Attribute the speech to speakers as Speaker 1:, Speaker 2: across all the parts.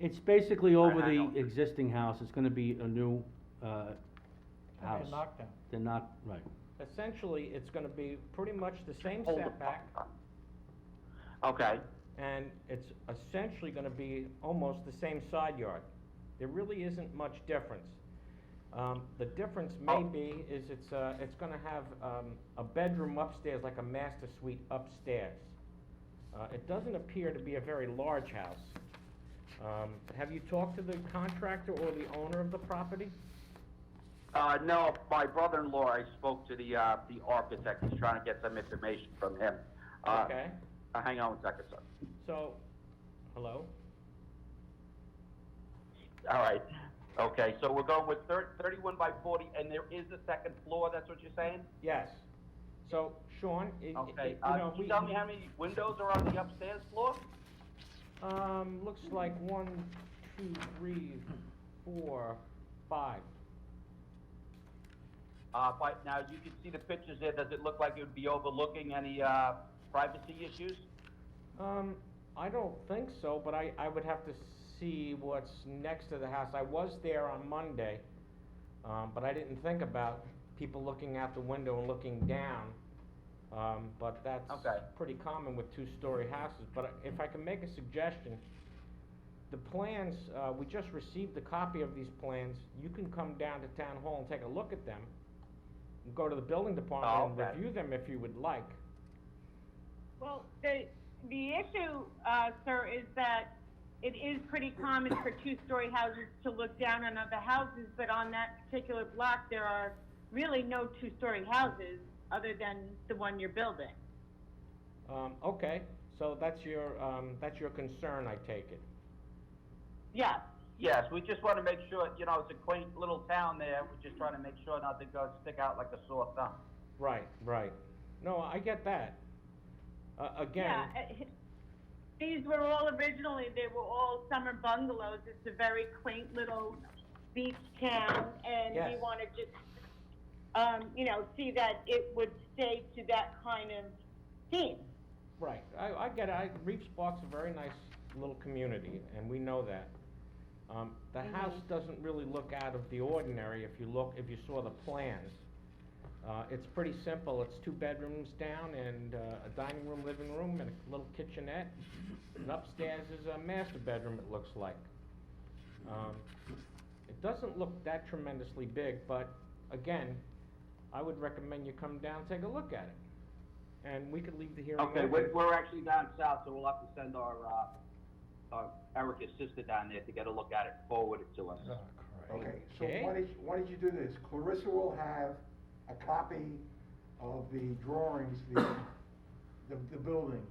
Speaker 1: It's basically
Speaker 2: Or
Speaker 1: over
Speaker 2: not
Speaker 1: the
Speaker 2: over.
Speaker 1: existing house, it's gonna be a new, uh, house.
Speaker 3: Okay, knockdown.
Speaker 1: They're not, right.
Speaker 3: Essentially, it's gonna be pretty much the same
Speaker 2: Hold the-
Speaker 3: setback,
Speaker 2: Okay,
Speaker 3: and it's essentially gonna be almost the same side yard. There really isn't much difference. Um, the difference
Speaker 2: Oh.
Speaker 3: may be is it's, uh, it's gonna have, um, a bedroom upstairs, like a master suite upstairs. Uh, it doesn't appear to be a very large house. Um, have you talked to the contractor or the owner of the property?
Speaker 2: uh, no, my brother-in-law, I spoke to the, uh, the architect, he's trying to get some information from him. Uh,
Speaker 3: Okay,
Speaker 2: Uh, hang on one second, sir.
Speaker 3: so, hello?
Speaker 2: All right, okay, so we're going with thir- thirty-one by forty, and there is a second floor, that's what you're saying?
Speaker 3: Yes. So, Sean, i- i- i-
Speaker 2: Okay,
Speaker 3: you
Speaker 2: uh,
Speaker 3: know,
Speaker 2: can
Speaker 3: we.
Speaker 2: you tell me how many windows are on the upstairs floor?
Speaker 3: Um, looks like one, two, three, four, five.
Speaker 2: Uh, by, now, you can see the pictures there, does it look like it would be overlooking any, uh, privacy issues?
Speaker 3: Um, I don't think so, but I, I would have to see what's next to the house. I was there on Monday, um, but I didn't think about people looking out the window and looking down. Um, but that's
Speaker 2: Okay.
Speaker 3: pretty common with two-story houses. But if I can make a suggestion, the plans, uh, we just received a copy of these plans. You can come down to town hall and take a look at them. and Go to the building department
Speaker 2: okay.
Speaker 3: and review them if you would like.
Speaker 4: Well, the, the issue, uh, sir, is that it is pretty common for two-story houses to look down on other houses, but on that particular block, there are really no two-story houses other than the one you're building.
Speaker 3: Um, okay, so that's your, um, that's your concern, I take it.
Speaker 4: Yes,
Speaker 2: Yes, we just want to make sure, you know, it's a quaint little town there, we're just trying to make sure nothing goes stick out like a sore thumb.
Speaker 3: Right, right. No, I get that. Uh,
Speaker 4: yeah.
Speaker 3: again,
Speaker 4: uh, These were all originally, they were all summer bungalows. It's a very quaint little beach town, and we
Speaker 3: Yes.
Speaker 4: want to just, um, you know, see that it would stay to that kind of theme.
Speaker 3: right, I, I get it. I, Reeves Park's a very nice little community, and we know that. Um, the house doesn't really look out of the ordinary if you look, if you saw the plans. Uh, it's pretty simple. It's two bedrooms down and, uh, a dining room, living room, and a little kitchenette. And upstairs is a master bedroom, it looks like. Um, It doesn't look that tremendously big, but again, I would recommend you come down, take a look at it. And we could leave the hearing
Speaker 2: Okay,
Speaker 3: open.
Speaker 2: we're, we're actually down south, so we'll have to send our, uh, uh, Erica's sister down there to get a look at it, forward it to us.
Speaker 5: Okay, so
Speaker 3: Okay.
Speaker 5: why don't, you- why don't you do this, Clarissa will have a copy of the drawings, the, the, the building.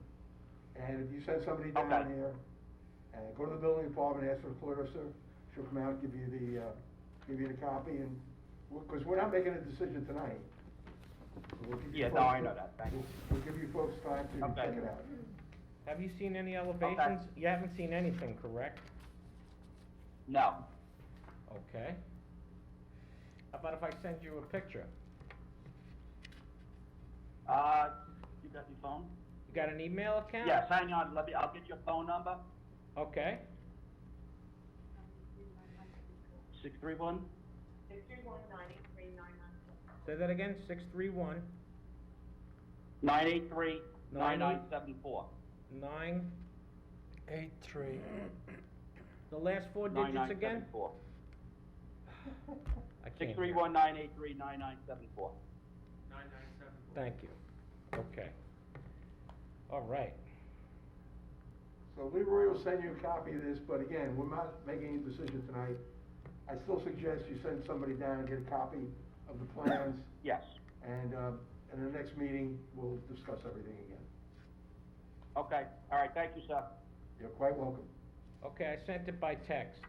Speaker 5: And if you send somebody down
Speaker 2: Okay.
Speaker 5: there, and go to the building department, ask for Clarissa, she'll come out, give you the, uh, give you the copy, and, we- cause we're not making a decision tonight. We'll give you
Speaker 2: Yeah, no, I
Speaker 5: folks-
Speaker 2: know that. Thank you.
Speaker 5: We'll we'll give you folks time to
Speaker 2: Okay.
Speaker 5: check it out.
Speaker 3: Have you seen any elevations? You haven't seen anything, correct?
Speaker 2: No,
Speaker 3: Okay. How about if I send you a picture?
Speaker 2: uh, you got your phone?
Speaker 3: You got an email account?
Speaker 2: Yes, hang on, let me, I'll get your phone number,
Speaker 3: Okay,
Speaker 2: six three one,
Speaker 3: say that again, six three one
Speaker 2: nine eight three, nine nine seven four.
Speaker 3: nine,
Speaker 6: Eight, three.
Speaker 3: the last four digits again? I can't
Speaker 2: Six
Speaker 3: hear.
Speaker 2: three one, nine eight three, nine nine seven four.
Speaker 3: Thank you. Okay. All right.
Speaker 5: So Leroy will send you a copy of this, but again, we're not making a decision tonight. I still suggest you send somebody down and get a copy of the plans,
Speaker 2: Yes,
Speaker 5: and, uh, in the next meeting, we'll discuss everything again.
Speaker 2: okay, all right, thank you, sir.
Speaker 5: You're quite welcome.
Speaker 3: Okay, I sent it by text.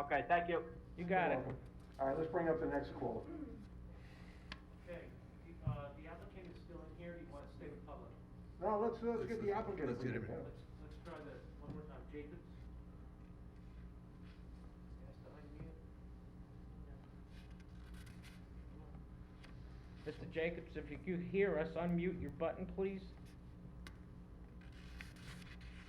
Speaker 2: Okay, thank you.
Speaker 3: You got
Speaker 5: You're
Speaker 3: it.
Speaker 5: welcome. All right, let's bring up the next call.
Speaker 7: Okay, the, uh, the applicant is still in here, do you want to stay with public?
Speaker 5: No, let's, let's get the applicant.
Speaker 6: Let's get him in.
Speaker 5: Yeah.
Speaker 7: Let's, let's try that one more time, Jacobs? Yes, to unmute.
Speaker 3: Mr. Jacobs, if you could hear us, unmute your button, please.